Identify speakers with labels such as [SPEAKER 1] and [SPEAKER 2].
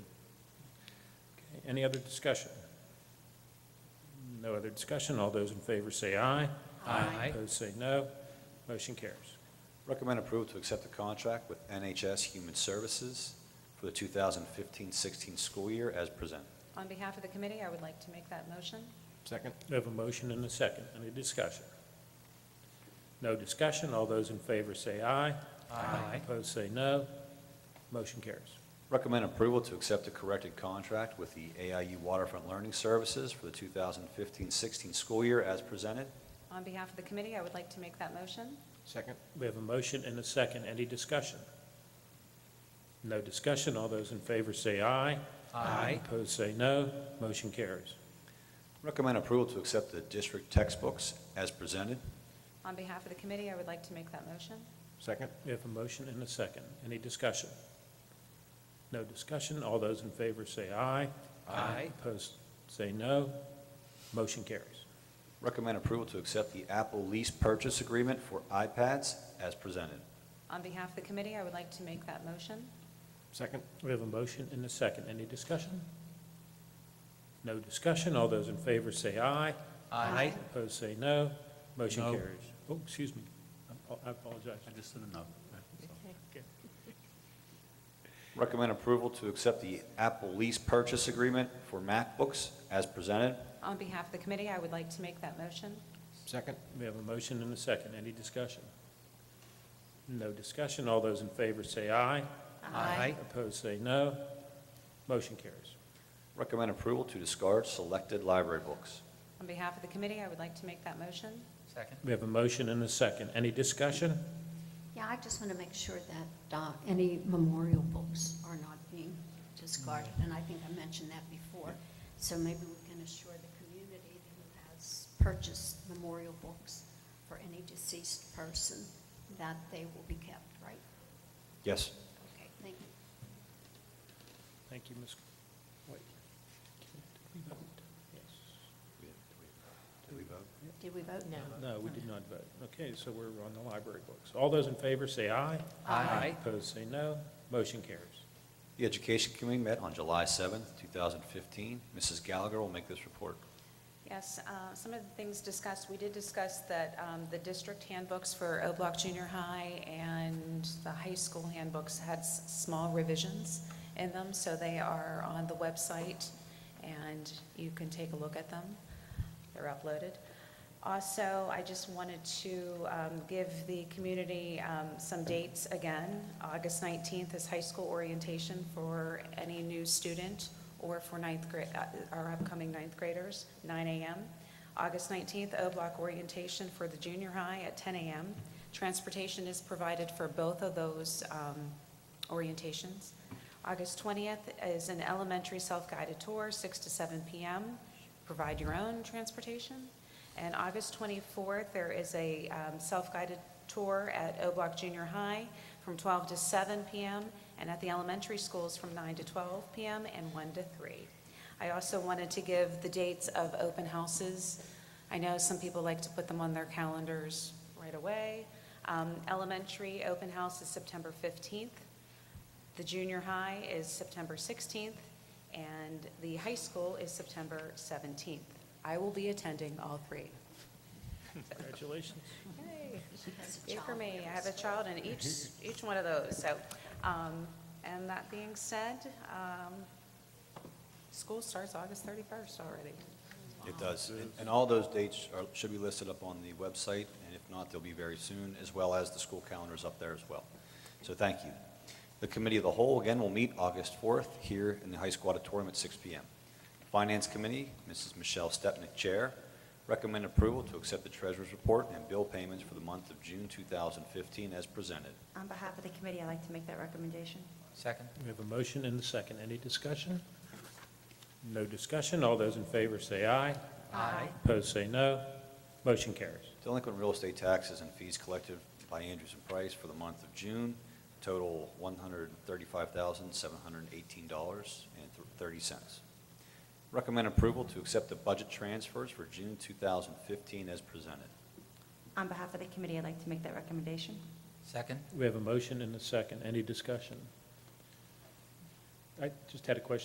[SPEAKER 1] Any other discussion? No other discussion. All those in favor say aye.
[SPEAKER 2] Aye.
[SPEAKER 1] Opposed say no. Motion carries.
[SPEAKER 3] Recommend approval to accept the contract with NHS Human Services for the 2015-16 school year as presented.
[SPEAKER 4] On behalf of the committee, I would like to make that motion.
[SPEAKER 2] Second?
[SPEAKER 1] We have a motion and a second. Any discussion? No discussion. All those in favor say aye.
[SPEAKER 2] Aye.
[SPEAKER 1] Opposed say no. Motion carries.
[SPEAKER 3] Recommend approval to accept a corrected contract with the AIU Waterfront Learning Services for the 2015-16 school year as presented.
[SPEAKER 4] On behalf of the committee, I would like to make that motion.
[SPEAKER 2] Second?
[SPEAKER 1] We have a motion and a second. Any discussion? No discussion. All those in favor say aye.
[SPEAKER 2] Aye.
[SPEAKER 1] Opposed say no. Motion carries.
[SPEAKER 3] Recommend approval to accept the district textbooks as presented.
[SPEAKER 4] On behalf of the committee, I would like to make that motion.
[SPEAKER 2] Second?
[SPEAKER 1] We have a motion and a second. Any discussion? No discussion. All those in favor say aye.
[SPEAKER 2] Aye.
[SPEAKER 1] Opposed say no. Motion carries.
[SPEAKER 3] Recommend approval to accept the Apple lease purchase agreement for iPads as presented.
[SPEAKER 4] On behalf of the committee, I would like to make that motion.
[SPEAKER 2] Second?
[SPEAKER 1] We have a motion and a second. Any discussion? No discussion. All those in favor say aye.
[SPEAKER 4] Aye.
[SPEAKER 1] Opposed say no. Motion
[SPEAKER 5] No.
[SPEAKER 1] carries. Oh, excuse me. I- I apologize.
[SPEAKER 5] I just said no.
[SPEAKER 3] Recommend approval to accept the Apple lease purchase agreement for MacBooks as presented.
[SPEAKER 4] On behalf of the committee, I would like to make that motion.
[SPEAKER 2] Second?
[SPEAKER 1] We have a motion and a second. Any discussion? No discussion. All those in favor say aye.
[SPEAKER 2] Aye.
[SPEAKER 1] Opposed say no. Motion carries.
[SPEAKER 3] Recommend approval to discard selected library books.
[SPEAKER 4] On behalf of the committee, I would like to make that motion.
[SPEAKER 2] Second?
[SPEAKER 1] We have a motion and a second. Any discussion?
[SPEAKER 6] Yeah, I just want to make sure that uh, any memorial books are not being discarded, and I think I mentioned that before. So maybe we can assure the community who has purchased memorial books for any deceased person that they will be kept, right?
[SPEAKER 3] Yes.
[SPEAKER 6] Okay, thank you.
[SPEAKER 1] Thank you, Ms. White. Did we vote? Yes.
[SPEAKER 3] Did we vote?
[SPEAKER 6] Did we vote?
[SPEAKER 1] No, we did not vote. Okay, so we're on the library books. All those in favor say aye.
[SPEAKER 2] Aye.
[SPEAKER 1] Opposed say no. Motion carries.
[SPEAKER 3] The Education Committee met on July 7th, 2015. Mrs. Gallagher will make this report.
[SPEAKER 4] Yes, uh, some of the things discussed, we did discuss that um, the district handbooks for O Block Junior High and the high school handbooks had s- small revisions in them, so they are on the website, and you can take a look at them. They're uploaded. Also, I just wanted to um, give the community um, some dates again. August 19th is high school orientation for any new student or for ninth grade, our upcoming ninth graders, 9 a.m. August 19th, O-Block orientation for the junior high at 10 a.m. Transportation is provided for both of those um, orientations. August 20th is an elementary self-guided tour, 6 to 7 p.m. Provide your own transportation. And August 24th, there is a um, self-guided tour at O Block Junior High from 12 to 7 p.m., and at the elementary schools from 9 to 12 p.m. and 1 to 3. I also wanted to give the dates of open houses. I know some people like to put them on their calendars right away. Um, Elementary open house is September 15th. The junior high is September 16th, and the high school is September 17th. I will be attending all three.
[SPEAKER 1] Congratulations.
[SPEAKER 4] Yay.
[SPEAKER 6] Has a
[SPEAKER 4] Yay for
[SPEAKER 6] child
[SPEAKER 4] me,
[SPEAKER 6] there,
[SPEAKER 4] I have a
[SPEAKER 6] so-
[SPEAKER 4] child in each, each one of those, so, um, and that being said, um, school starts August 31st already.
[SPEAKER 3] It does. And- And all those dates are- should be listed up on the website, and if not, they'll be very soon, as well as the school calendars up there as well. So thank you. The Committee of the Whole, again, will meet August 4th here in the High School Auditorium at 6 PM. Finance Committee, Mrs. Michelle Stepnick, Chair, recommend approval to accept the Treasurer's Report and bill payments for the month of June 2015 as presented.
[SPEAKER 7] On behalf of the committee, I'd like to make that recommendation.
[SPEAKER 2] Second?
[SPEAKER 1] We have a motion and a second. Any discussion? No discussion. All those in favor say aye.
[SPEAKER 2] Aye.
[SPEAKER 1] Opposed say no. Motion carries.
[SPEAKER 3] Delinquent real estate taxes and fees collected by Andrews and Price for the month of June total $135,718.30. Recommend approval to accept the budget transfers for June 2015 as presented.
[SPEAKER 7] On behalf of the committee, I'd like to make that recommendation.
[SPEAKER 2] Second?
[SPEAKER 1] We have a motion and a second. Any discussion? I just had a question